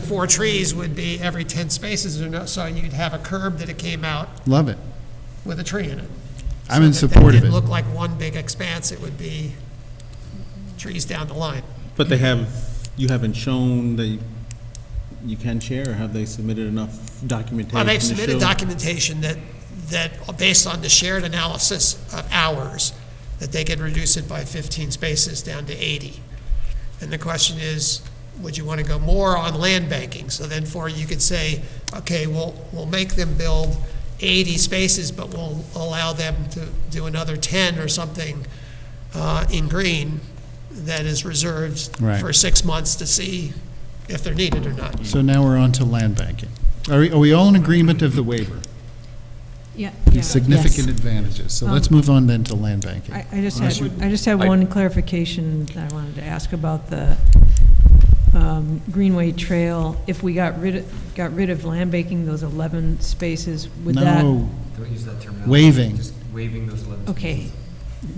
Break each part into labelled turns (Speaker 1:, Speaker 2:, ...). Speaker 1: four trees would be every 10 spaces or no, so you'd have a curb that it came out
Speaker 2: Love it.
Speaker 1: with a tree in it.
Speaker 2: I'm in
Speaker 1: So that-
Speaker 2: support of
Speaker 1: That
Speaker 2: it.
Speaker 1: didn't look like one big expanse, it would be trees down the line.
Speaker 3: But they have, you haven't shown that you can share, or have they submitted enough documentation?
Speaker 1: Well, they've
Speaker 3: to
Speaker 1: submitted
Speaker 3: show-
Speaker 1: documentation that, that, based on the shared analysis of hours, that they could reduce it by 15 spaces down to 80. And the question is, would you want to go more on land banking? So then for, you could say, okay, we'll, we'll make them build 80 spaces, but we'll allow them to do another 10 or something uh, in green that is reserved
Speaker 2: Right.
Speaker 1: for six months to see if they're needed or not.
Speaker 2: So now we're on to land banking. Are we, are we all in agreement of the waiver?
Speaker 4: Yeah.
Speaker 2: The significant advantages. So
Speaker 1: Um,
Speaker 2: let's move on then to land banking.
Speaker 4: I, I just had, I just had
Speaker 5: I-
Speaker 4: one clarification that I wanted to ask about the um, Greenway Trail. If we got rid, of- got rid of land banking, those 11 spaces, would that?
Speaker 2: No,
Speaker 5: Don't use that terminology.
Speaker 2: Waiving.
Speaker 5: Just waiving those 11.
Speaker 4: Okay,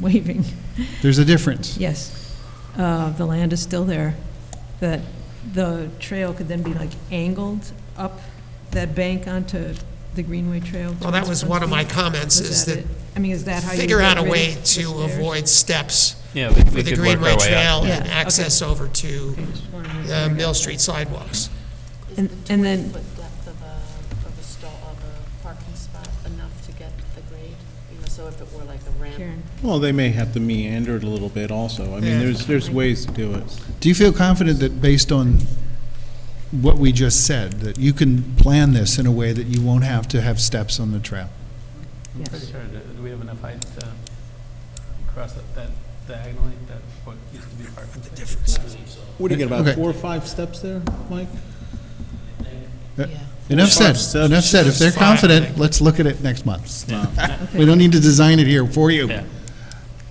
Speaker 4: waving,
Speaker 2: there's a difference.
Speaker 4: yes. Uh, The land is still there. That the trail could then be like angled up that bank onto the Greenway Trail?
Speaker 1: Well, that was
Speaker 4: towards
Speaker 1: one of my
Speaker 4: Front Street?
Speaker 1: comments,
Speaker 4: Was
Speaker 1: is that
Speaker 4: it? I mean, is that how you?
Speaker 1: figure
Speaker 4: get
Speaker 1: out a
Speaker 4: rid
Speaker 1: way
Speaker 4: of the
Speaker 1: to
Speaker 4: stairs?
Speaker 1: avoid steps
Speaker 6: Yeah, we, we
Speaker 1: with the
Speaker 6: could work
Speaker 1: Greenway
Speaker 6: our way
Speaker 1: Trail
Speaker 6: out.
Speaker 4: Yeah,
Speaker 1: and
Speaker 4: okay.
Speaker 1: access over to
Speaker 4: I just wanted to make sure I
Speaker 1: the
Speaker 4: got
Speaker 1: Mill
Speaker 4: that.
Speaker 1: Street sidewalks.
Speaker 4: And- and then-
Speaker 7: Is the 20-foot depth of a, of a stall, of a parking spot enough to get the grade? You know, so if it were like a ramp,
Speaker 4: Karen,
Speaker 3: Well, they may have to meander it a little bit also. I
Speaker 1: Yeah.
Speaker 3: mean, there's, there's ways to do it.
Speaker 2: Do you feel confident that based on what we just said, that you can plan this in a way that you won't have to have steps on the trail?
Speaker 6: I'm pretty sure, that- do we have enough height to cross that, that diagonally, that what used to be parking? The difference.
Speaker 3: What do you get,
Speaker 2: Okay.
Speaker 3: about four or five steps there, Mike?
Speaker 2: Uh,
Speaker 7: yeah.
Speaker 2: Enough said,
Speaker 3: Five steps.
Speaker 2: enough said. If they're
Speaker 1: Five, I
Speaker 2: confident,
Speaker 1: think.
Speaker 2: let's look at it next month. We
Speaker 4: okay.
Speaker 2: don't need to design it here for you.
Speaker 6: Yeah.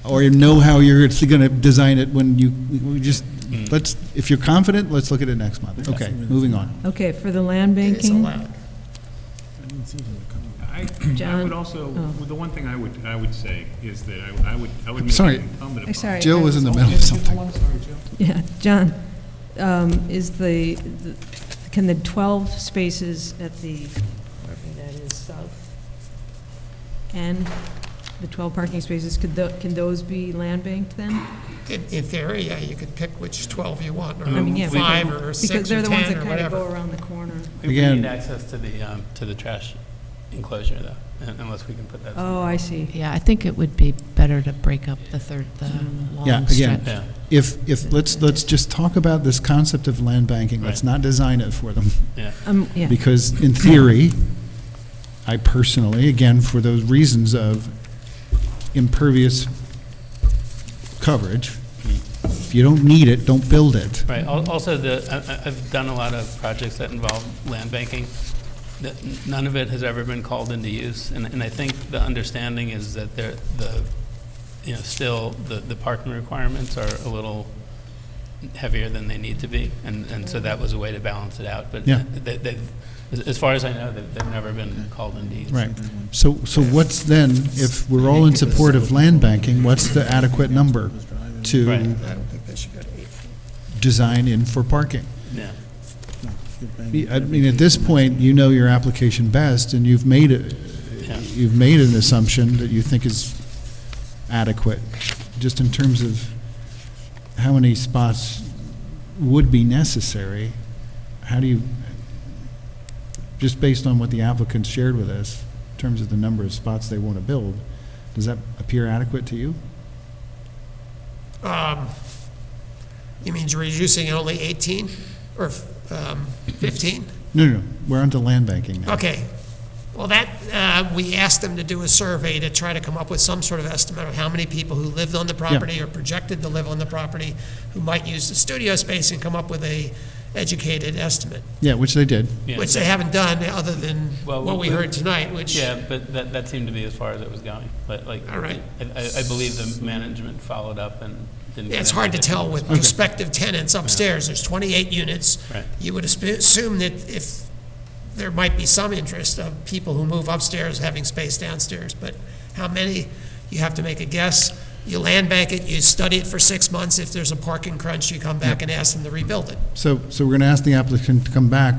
Speaker 2: Or you know how you're going to design it when you, we just,
Speaker 6: Mm.
Speaker 2: let's, if you're confident, let's look at it next month. Okay, moving on.
Speaker 4: Okay, for the land
Speaker 1: It's
Speaker 4: banking,
Speaker 1: allowed.
Speaker 8: I, I
Speaker 4: John?
Speaker 8: would also,
Speaker 4: Oh.
Speaker 8: the one thing I would, I would say is that I I would, I would make
Speaker 2: sorry.
Speaker 8: it incumbent
Speaker 4: I'm
Speaker 8: upon.
Speaker 4: sorry.
Speaker 2: Jill
Speaker 4: I
Speaker 2: was in the middle of something.
Speaker 4: Yeah, John, um, is the, the- can the 12 spaces at the, wherever that is, south end, the 12 parking spaces, could tho, can those be land banked then?
Speaker 1: In in theory, yeah, you could pick which 12 you want,
Speaker 4: I mean,
Speaker 1: or
Speaker 4: yeah,
Speaker 1: five, or
Speaker 4: Because
Speaker 1: six,
Speaker 4: they're
Speaker 1: or
Speaker 4: the ones
Speaker 1: 10,
Speaker 4: that
Speaker 1: or
Speaker 4: kind of go
Speaker 1: whatever.
Speaker 4: around the corner.
Speaker 6: We we
Speaker 2: Again-
Speaker 6: need access to the, um, to the trash enclosure though, un- unless we can put that.
Speaker 4: Oh, I see.
Speaker 7: Yeah, I think it would be better to break up the third, the
Speaker 2: Yeah,
Speaker 7: long
Speaker 2: again,
Speaker 7: stretch.
Speaker 6: Yeah.
Speaker 2: if, if, let's, let's just talk about this concept of land banking. Let's
Speaker 6: Right.
Speaker 2: not design it for them.
Speaker 6: Yeah.
Speaker 4: Um, yeah,
Speaker 2: Because in theory, I personally, again, for those reasons of impervious coverage, if you don't need it, don't build it.
Speaker 6: Right, Al- also the, I- I- I've done a lot of projects that involve land banking. that n- None of it has ever been called into use, and and I think the understanding is that there, the, you know, still, the the parking requirements are a little heavier than they need to be, and and so that was a way to balance it out, but
Speaker 2: Yeah.
Speaker 6: they- they've, as- as far as I know, they've they've never been called into use.
Speaker 2: Right. So, so what's then, if we're all in support of land banking, what's the adequate number
Speaker 6: Right.
Speaker 2: to
Speaker 1: I don't think they should go to eight.
Speaker 2: design in for parking?
Speaker 6: Yeah.
Speaker 2: I mean, at this point, you know your application best, and you've made, a-
Speaker 6: Yeah.
Speaker 2: you've made an assumption that you think is adequate, just in terms of how many spots would be necessary. How do you, just based on what the applicant shared with us, in terms of the number of spots they want to build, does that appear adequate to you?
Speaker 1: Um, You mean reducing it only 18, or um, 15?
Speaker 2: No, no, no, we're onto land banking now.
Speaker 1: Okay. Well, that, uh, we asked them to do a survey to try to come up with some sort of estimate of how many people who lived on the property or projected to live on the property who might use the studio space and come up with a educated estimate,
Speaker 2: Yeah, which they did.
Speaker 6: Yeah.
Speaker 1: which they haven't done other than
Speaker 6: Well,
Speaker 1: what we
Speaker 6: we-
Speaker 1: heard tonight, which,
Speaker 6: Yeah, but that, that seemed to be as far as it was going, but like.
Speaker 1: All right.
Speaker 6: I, I I believe the management followed up and didn't.
Speaker 1: Yeah,
Speaker 6: get
Speaker 1: it's hard to
Speaker 6: into-
Speaker 1: tell with prospective tenants upstairs. There's 28 units.
Speaker 6: Right.
Speaker 1: You would asp- assume that if, there might be some interest of people who move upstairs having space downstairs, but how many, you have to make a guess. you land bank it, you study it for six months, if there's a parking crunch, you come back and ask them to rebuild it.
Speaker 2: So, so we're going to ask the applicant to come back